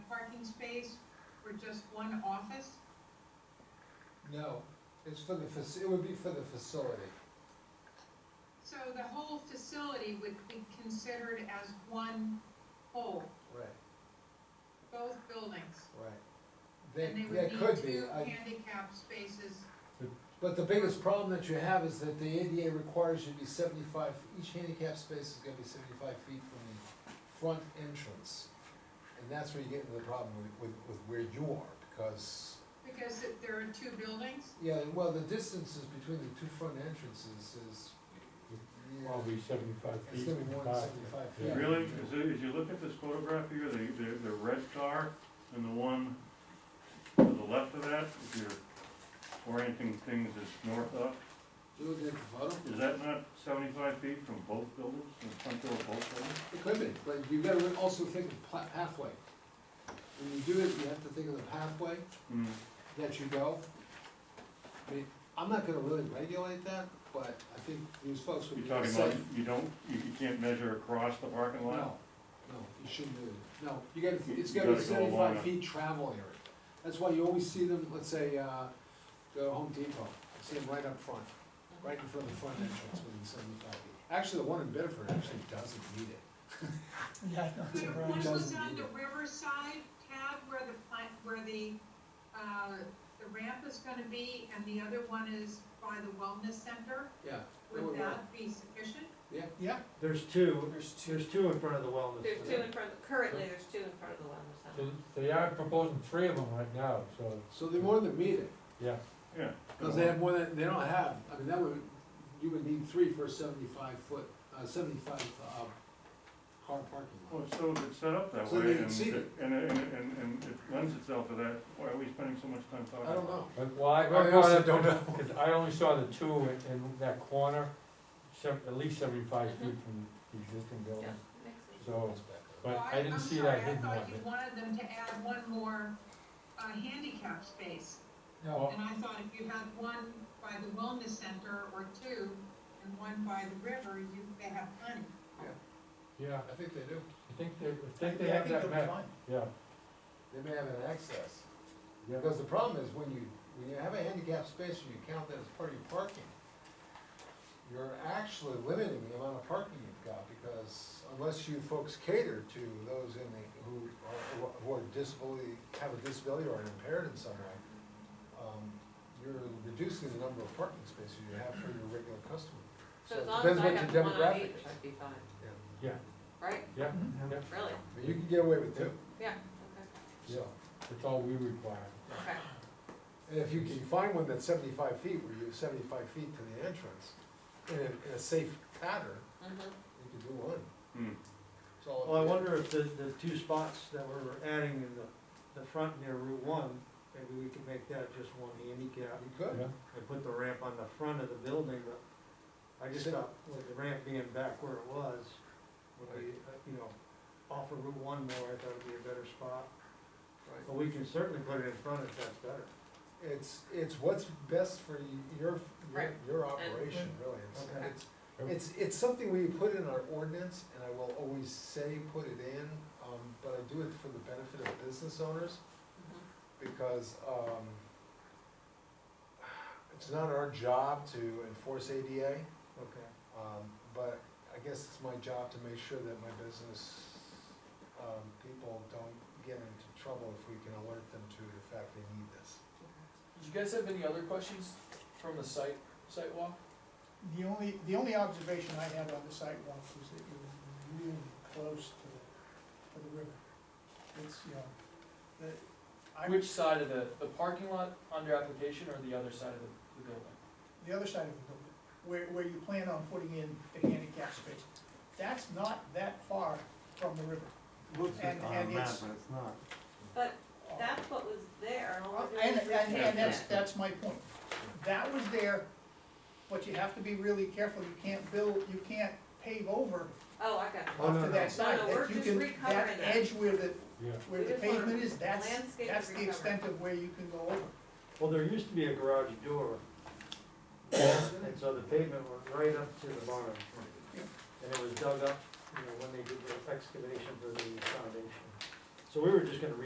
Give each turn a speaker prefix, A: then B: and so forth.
A: for just one office?
B: No, it's for the, fac- it would be for the facility.
A: So the whole facility would be considered as one whole,
B: Right,
A: both buildings?
B: right.
A: And
B: They,
A: they
B: they
A: would
B: could
A: need
B: be,
A: two
B: I-
A: handicap spaces,
B: but the biggest problem that you have is that the ADA requires you to be seventy-five, each handicap space is gonna be seventy-five feet from the front entrance. And that's where you get into the problem with, with, with where you are, because,
A: because it- there are two buildings?
B: yeah, well, the distances between the two front entrances is. yeah.
C: Probably seventy-five
B: It's
C: feet
B: gonna be
C: in
B: more than
C: back.
B: 75 feet.
C: Yeah.
D: Really, as, as you look at this photograph here, the, the, the red car and the one to the left of that, if you're orienting things as north up,
B: Do they photo?
D: is that not seventy-five feet from both buildings, from the front door of both buildings?
B: It could be, but you gotta also think of pla- pathway. When you do it, you have to think of the pathway
D: Hmm.
B: that you go. I mean, I'm not gonna really regulate that, but I think these folks would
D: You're
B: be
D: talking about,
B: safe.
D: you don't, you you can't measure across the parking lot?
B: No, no, you shouldn't do it. No, you gotta,
D: You-
B: it's
D: you
B: gotta be
D: gotta go along
B: seventy-five
D: it.
B: feet travel area. That's why you always see them, let's say, uh, go to Home Depot, you see them right up front, right in front of the front entrance within seventy-five feet. Actually, the one in Bedford actually doesn't need it.
E: Yeah,
A: But if one was
B: Doesn't
A: on
B: need
A: the
B: it.
A: Riverside tab where the plant, where the, uh, the ramp is gonna be, and the other one is by the wellness center,
B: Yeah.
A: would that be sufficient?
E: Yeah,
F: There's two, there's, there's two in front of the wellness.
G: There's two
F: center.
G: in front, currently, there's two in front of the wellness center.
C: They, they are proposing three of them right now, so,
B: So they more than meet it.
C: yeah.
D: Yeah.
B: Because they have more than, they don't have, I mean, that would, you would need three for a seventy-five foot, uh, seventy-five, uh, car parking
D: Well,
B: lot.
D: so if Oh, it's set up that
B: So
D: way,
B: they
D: and,
B: exceed it.
D: and, and, and and it lends itself to that, why are we spending so much time talking?
B: I don't
D: about
B: know.
C: But why,
B: I also don't know.
C: because I only saw the two in, in that corner, sev- at least seventy-five
H: Mm-hmm.
C: feet from the existing building.
G: Yeah, makes sense.
C: So, but
A: Well,
C: I didn't
A: I'm
C: see
A: sorry,
C: that hidden
A: I
C: one.
A: thought you wanted them to add one more, uh, handicap space.
C: No,
A: And I thought if you had one by the wellness center or two, and one by the river, you, they have plenty.
C: Oh, yeah,
B: I think they do.
C: I think they, I think they have that map, yeah,
B: They may have an access.
C: yeah.
B: Because the problem is when you, when you have a handicap space and you count that as part of your parking, you're actually limiting the amount of parking you've got because unless you folks cater to those in the, who are, who are disability, have a disability or are impaired in some way, um, you're reducing the number of parking spaces you have for your regular customer.
G: So as
B: it
G: long as
B: depends
G: I
B: what
G: have
B: your
G: one on
B: demographic
G: each,
B: is.
G: I'd be fine,
B: Yeah.
C: Yeah,
G: right?
C: yeah,
B: Mm-hmm.
C: yeah,
G: Really?
B: But you can get away with two,
G: Yeah,
B: so.
C: that's all we require.
G: okay, okay.
B: And if you can find one that's seventy-five feet, where you're seventy-five feet to the entrance, in a, in a safe pattern,
G: Mhm.
B: you could do one.
D: it? Hmm.
B: It's all up
F: Well, I
B: to you.
F: wonder if the, the two spots that we're adding in the, the front near Route One, maybe we could make that just one handicap
B: You could,
C: Yeah.
F: and put the ramp on the front of the building, but I just thought with the ramp being back where it was, would be, uh, you know, off of Route One more, I thought it'd be a better spot. But we can certainly put it in front if that's better.
B: it's, it's what's best for y- your, your,
G: Right.
B: your operation, really,
F: Okay.
B: it's, it's, it's, it's something we put in our ordinance, and I will always say, put it in, um, but I do it for the benefit of business owners,
G: Mhm.
F: Mm-hmm.
B: because, um, it's not our job to enforce ADA,
F: Okay.
B: Um, but I guess it's my job to make sure that my business, um, people don't get into trouble if we can alert them to the fact they need this.
H: Did you guys have any other questions from the site, site walk?
E: the only, the only observation I had on the sidewalk was that it was really close to the, to the river. It's, you know, the, I,
H: Which side of the, the parking lot under application or the other side of the, the building?
E: the other side of the building, where, where you plan on putting in the handicap space, that's not that far from the river.
C: Looks
E: like And- on a and map, it's-
C: but it's not.
G: But that's what was there, what was it?
E: And, and, and that's,
G: Yeah.
E: that's my point. That was there, but you have to be really careful, you can't build, you can't pave over
G: Oh, I got it.
C: Oh, no,
E: off to
C: no.
E: that side.
G: No, no,
E: That
G: we're
E: you
G: just
E: can-
G: recovering that.
E: That edge where the,
C: Yeah.
E: where
G: We
E: the
G: just wanna
E: pavement is, that's,
G: landscape
E: that's the
G: recovery.
E: extent of where you can go over.
F: Well, there used to be a garage door, and so the pavement went right up to the barn. And it was dug up, you know, when they did the excavation for the foundation. So we were just gonna